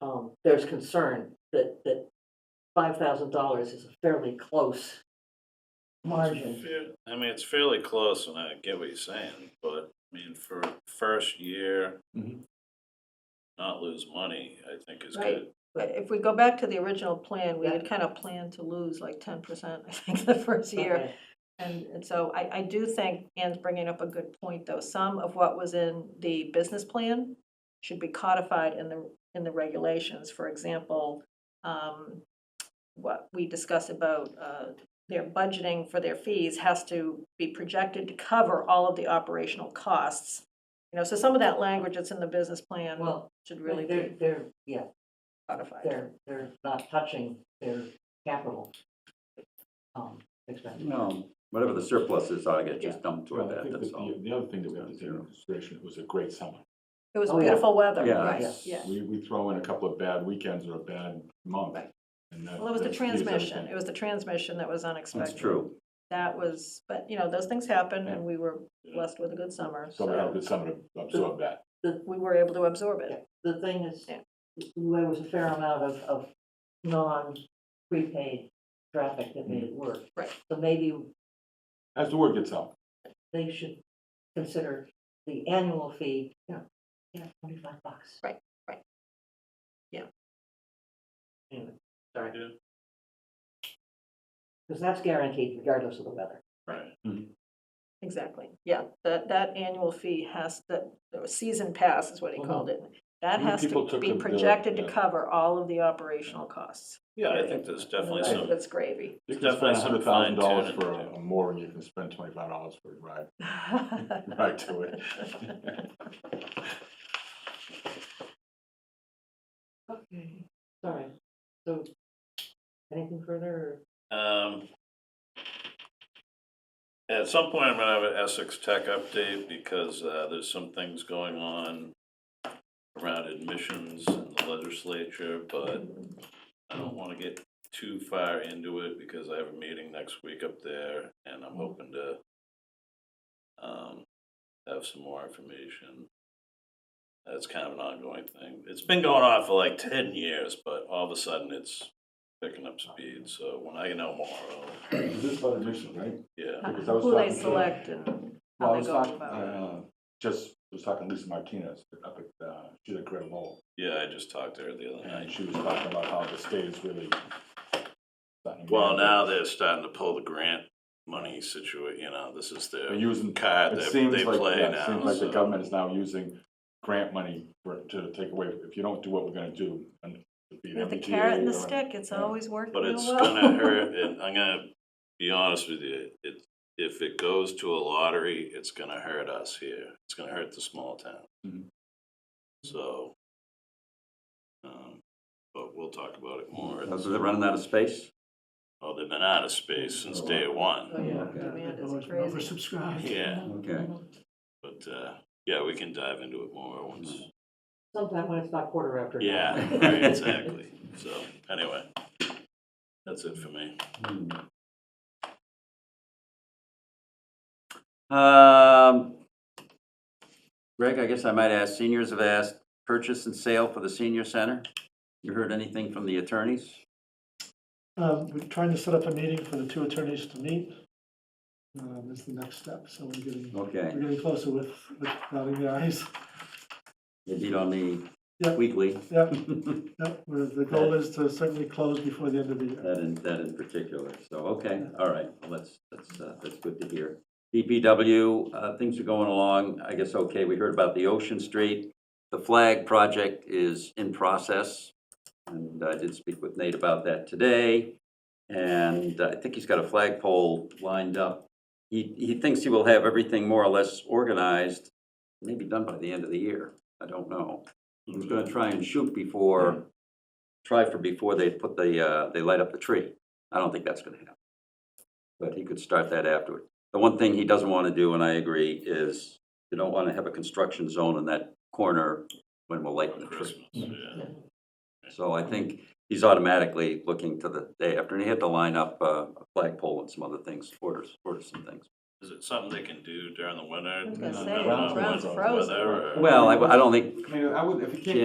um, there's concern that, that five thousand dollars is a fairly close margin. I mean, it's fairly close, and I get what you're saying, but, I mean, for first year, Mhm. not lose money, I think is Right. good. But if we go back to the original plan, we had kind of planned to lose like ten percent, I think, the first year. Okay. And, and so I, I do think Anne's bringing up a good point, though. Some of what was in the business plan should be codified in the, in the regulations. For example, um, what we discuss about, uh, their budgeting for their fees has to be projected to cover all of the operational costs. You know, so some of that language that's in the business plan Well, should really They're, be they're, yeah, codified. they're, they're not touching their capital. Um, expense. No, whatever the surplus is, ought to get Yeah. just dumped Well, toward I that, think that that's all. the, the other thing that we have to take into consideration, it was a great summer. It was Oh, yeah. beautiful weather, Yeah, right, that's- yeah. We, we throw in a couple of bad weekends or a bad month. Right. and that- Well, it was the that skews transmission, it everything. was the transmission that was unexpected. That's true. That was, but, you know, those things happen, and we were Yeah. blessed with a good summer, So we had a so good summer to absorb that. we were able to absorb Yeah. it. The thing is, Yeah. there was a fair amount of, of non-prepaid traffic that made it work. Right. So maybe As the word gets out, they should consider the annual fee, you know, you know, twenty-five bucks. Right, right. Yeah. Anyway, sorry, because that's guaranteed regardless of the weather. Right. Exactly, yeah, that, that annual fee has, that, the season pass is what he called it. That Many has Mm-hmm. people to took be the- the- projected to yeah. cover all of the operational costs. Yeah, I think there's definitely That's- some, That's gravy. you can spend a Definitely hundred some fine thousand dollars tuning for to a a mooring, you can spend twenty-five dollars for a ride, Right ride to it. Okay. Sorry, so, anything further? um, at some point, I'm gonna have an Essex Tech update, because, uh, there's some things going on around admissions in the legislature, but I don't wanna get too far into it, because I have a meeting next week up there, and I'm hoping to um, have some more information. That's kind of an ongoing thing. It's been going on for like ten years, but all of a sudden it's picking up speed, so when I know more, I'll, This is about admission, right? yeah. Because I was Who they talking to- select and Well, how I they was go talking, about it. uh, just, was talking to Lisa Martinez up at, uh, she's at Great Lowell. Yeah, I just talked to her the other And night. she was talking about how the state is really. starting to- Well, now they're starting to pull the grant money situation, you know, this is They're their using, card it that seems they like, play yeah, it now. seems like the so- government is now using grant money for, to take away, if you don't do what we're gonna do. and it'd be an With the MBTA carrot and the or- stick, it's yeah. always working But real it's well. gonna hurt, and I'm gonna be honest with you, it, if it goes to a lottery, it's gonna hurt us here. It's gonna hurt the small town. Mhm. So, um, but we'll talk about it more. Because they're running out of space? Oh, they've been out of space since day one, Oh, yeah, Okay. demand is Otherwise, we're crazy. Oversubscribed. Yeah. Okay. but, uh, yeah, we can dive into it more once. Sometime when it's not quarter after. nine. Yeah, right, exactly. So, anyway, that's it for me. Hmm. Um, Greg, I guess I might ask, seniors have asked purchase and sale for the senior center. You heard anything from the attorneys? Um, We're trying to set up a meeting for the two attorneys to meet. Um, Is the next step, so we're getting, Okay, we're getting closer with, with dotting the i's. they did on the Yep. weekly. Yep, That yep, we're- the goal is to certainly close before the end of the year. in, that in particular, so, okay, all right, well, that's, that's, uh, that's good to hear. DPW, uh, things are going along, I guess, okay, we heard about the Ocean Street. The flag project is in process, and I did speak with Nate about that today. And I think he's got a flagpole lined up. He, he thinks he will have everything more or less organized, maybe done by the end of the year, I don't know. He was gonna try and shoot before, try for before they put the, uh, they light up the tree. I don't think that's gonna happen. But he could start that afterward. The one thing he doesn't wanna do, and I agree, is you don't wanna have a construction zone in that corner when we're lighting the tree. Christmas, yeah. So I think he's automatically looking to the day after, and he had to line up uh, a flagpole and some other things, order, order some things. Is it something they can do during the winter? I was gonna No, say, no, no, the ground's weather frozen. or- Well, I, I don't think I mean, I would, if you can't